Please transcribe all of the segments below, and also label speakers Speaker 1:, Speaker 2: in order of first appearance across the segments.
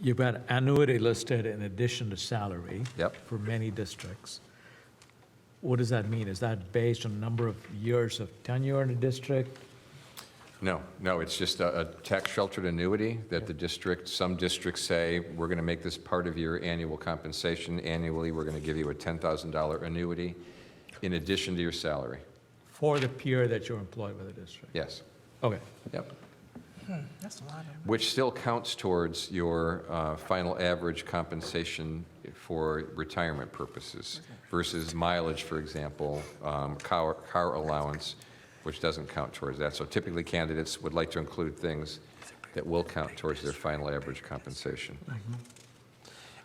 Speaker 1: You've got annuity listed in addition to salary.
Speaker 2: Yep.
Speaker 1: For many districts. What does that mean? Is that based on number of years of tenure in a district?
Speaker 2: No, no, it's just a a tax-sheltered annuity that the district, some districts say, we're going to make this part of your annual compensation. Annually, we're going to give you a $10,000 annuity in addition to your salary.
Speaker 1: For the peer that you're employed with the district?
Speaker 2: Yes,
Speaker 1: Okay,
Speaker 2: yep.
Speaker 3: Hmm, That's a lot of.
Speaker 2: Which still counts towards your uh, final average compensation for retirement purposes versus mileage, for example, um, car car allowance, which doesn't count towards that. So typically, candidates would like to include things that will count towards their final average compensation.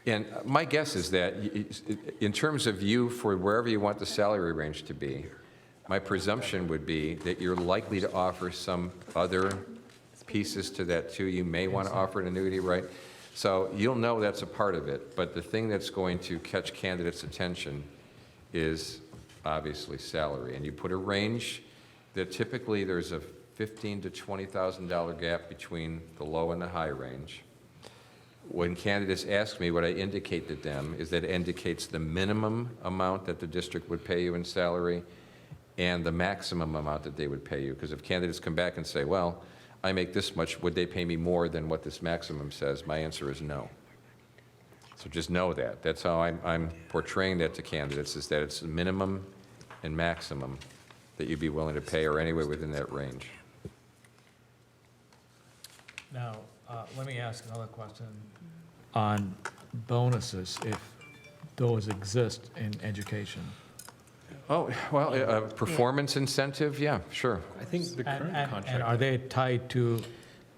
Speaker 2: And my guess is that, y- y- in terms of you, for wherever you want the salary range to be, my presumption would be that you're likely to offer some other pieces to that too. You may want to offer an annuity, right? So you'll know that's a part of it, but the thing that's going to catch candidates' attention is obviously salary. And you put a range that typically there's a $15,000 to $20,000 gap between the low and the high range when candidates ask me, what I indicate to them is that it indicates the minimum amount that the district would pay you in salary and the maximum amount that they would pay you. Because if candidates come back and say, well, I make this much, would they pay me more than what this maximum says? My answer is no. So just know that. That's how I'm, I'm portraying that to candidates, is that it's the minimum and maximum that you'd be willing to pay or anywhere within that range.
Speaker 1: now, uh, let me ask another question. On bonuses, if those exist in education.
Speaker 2: Oh, well, a a performance incentive, yeah, sure.
Speaker 4: I think
Speaker 1: And-
Speaker 4: the current
Speaker 1: And and are
Speaker 4: contract,
Speaker 1: they tied to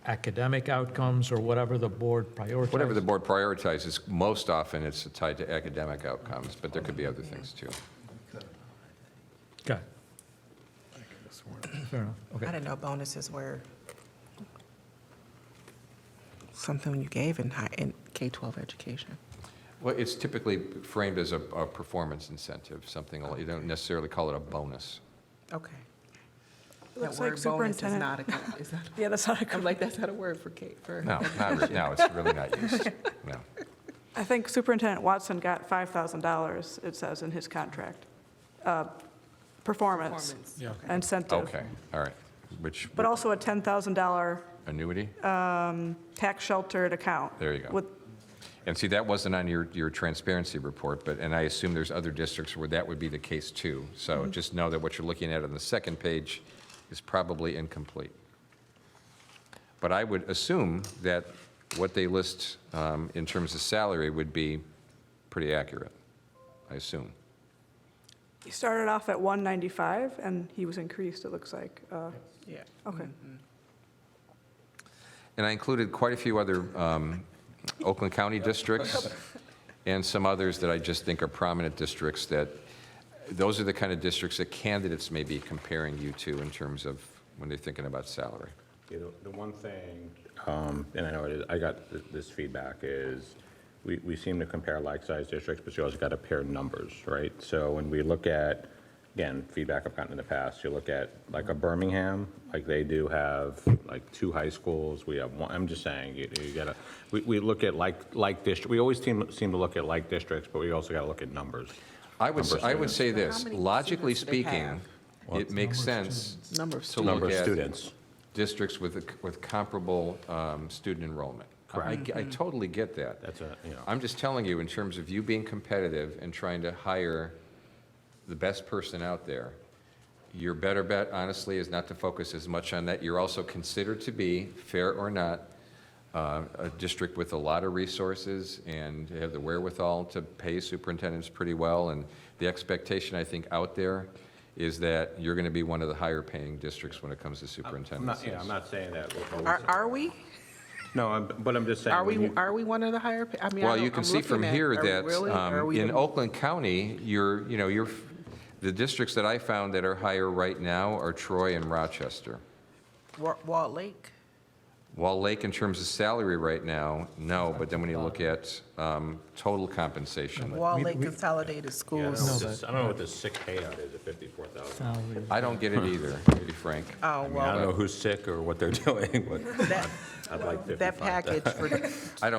Speaker 1: academic outcomes or whatever the board prioritizes?
Speaker 2: Whatever the board prioritizes, most often it's tied to academic outcomes, but there could be other things too.
Speaker 1: Okay. Fair enough,
Speaker 3: I
Speaker 1: okay.
Speaker 3: didn't know bonuses were something you gave in high, in K-12 education.
Speaker 2: Well, it's typically framed as a, a performance incentive, something, like- you don't necessarily call it a bonus.
Speaker 3: Okay.
Speaker 5: Looks
Speaker 3: That word
Speaker 5: like
Speaker 3: bonus is
Speaker 5: superintendent.
Speaker 3: not a co- is that-
Speaker 5: Yeah, that's not a,
Speaker 3: I'm
Speaker 5: cor-
Speaker 3: like, that's not a word for K, for.
Speaker 2: No, not really, no, it's really not used, no.
Speaker 5: I think Superintendent Watson got $5,000, it says in his contract. Uh, Performance
Speaker 3: Performance.
Speaker 4: yeah.
Speaker 5: incentive.
Speaker 2: Okay, all right, which,
Speaker 5: But also a $10,000
Speaker 2: annuity?
Speaker 5: tax-sheltered account.
Speaker 2: There you go.
Speaker 5: With,
Speaker 2: And see, that wasn't on your, your transparency report, but, and I assume there's other districts where that would be the case too. So just know that what you're looking at on the second page is probably incomplete. But I would assume that what they list um, in terms of salary would be pretty accurate, I assume.
Speaker 5: he started off at 195, and he was increased, it looks like. Uh,
Speaker 3: Yeah.
Speaker 5: Okay.
Speaker 2: And I included quite a few other um, Oakland County districts and some others that I just think are prominent districts that, those are the kind of districts that candidates may be comparing you to in terms of when they're thinking about salary.
Speaker 6: You know, the one thing, um, and I know it is, I got th- this feedback is, we, we seem to compare like-sized districts, but you also got to pair numbers, right? So when we look at, again, feedback I've gotten in the past, you look at like a Birmingham, like they do have like two high schools, we have one, I'm just saying, you, you gotta, we, we look at like, like district, we always seem, seem to look at like districts, but we also got to look at numbers.
Speaker 2: I would, s- I would say
Speaker 3: How
Speaker 2: this,
Speaker 3: many
Speaker 2: logically
Speaker 3: students do they
Speaker 2: speaking,
Speaker 3: have?
Speaker 2: it makes sense
Speaker 3: Number of
Speaker 2: to
Speaker 3: students.
Speaker 6: Number
Speaker 2: look
Speaker 6: of
Speaker 2: at
Speaker 6: students.
Speaker 2: districts with, a- with comparable um, student enrollment. I I totally get that.
Speaker 6: That's a, you know.
Speaker 2: I'm just telling you, in terms of you being competitive and trying to hire the best person out there, your better bet, honestly, is not to focus as much on that. You're also considered to be, fair or not, uh, a district with a lot of resources and have the wherewithal to pay superintendents pretty well. And the expectation, I think, out there is that you're going to be one of the higher-paying districts when it comes to
Speaker 6: I'm
Speaker 2: superintendents.
Speaker 6: not, yeah, I'm not saying that. we're always-
Speaker 3: Are, are we?
Speaker 6: No, I'm- but I'm just saying.
Speaker 3: Are
Speaker 6: when
Speaker 3: we,
Speaker 6: you-
Speaker 3: are we one of the higher, pa- I mean, I
Speaker 2: Well,
Speaker 3: don't-
Speaker 2: you can
Speaker 3: I'm
Speaker 2: see from
Speaker 3: looking at-
Speaker 2: here
Speaker 3: are we really?
Speaker 2: that
Speaker 3: Are
Speaker 2: um,
Speaker 3: we
Speaker 2: in
Speaker 3: the-
Speaker 2: Oakland County, you're, you know, you're, the districts that I found that are higher right now are Troy and Rochester.
Speaker 3: Wa- Walt Lake?
Speaker 2: Wall Lake, in terms of salary right now, no, but then when you look at um, total compensation,
Speaker 3: Walt Lake Consolidated
Speaker 6: Yeah, I don't know
Speaker 3: Schools.
Speaker 6: what this- I don't know what this sick payout is at 54,000.
Speaker 1: Salary.
Speaker 2: I don't get it either, to be frank.
Speaker 3: Oh,
Speaker 6: I don't
Speaker 3: well,
Speaker 6: know who's sick or what they're doing, but
Speaker 3: that,
Speaker 6: I'd like 55.
Speaker 3: that package for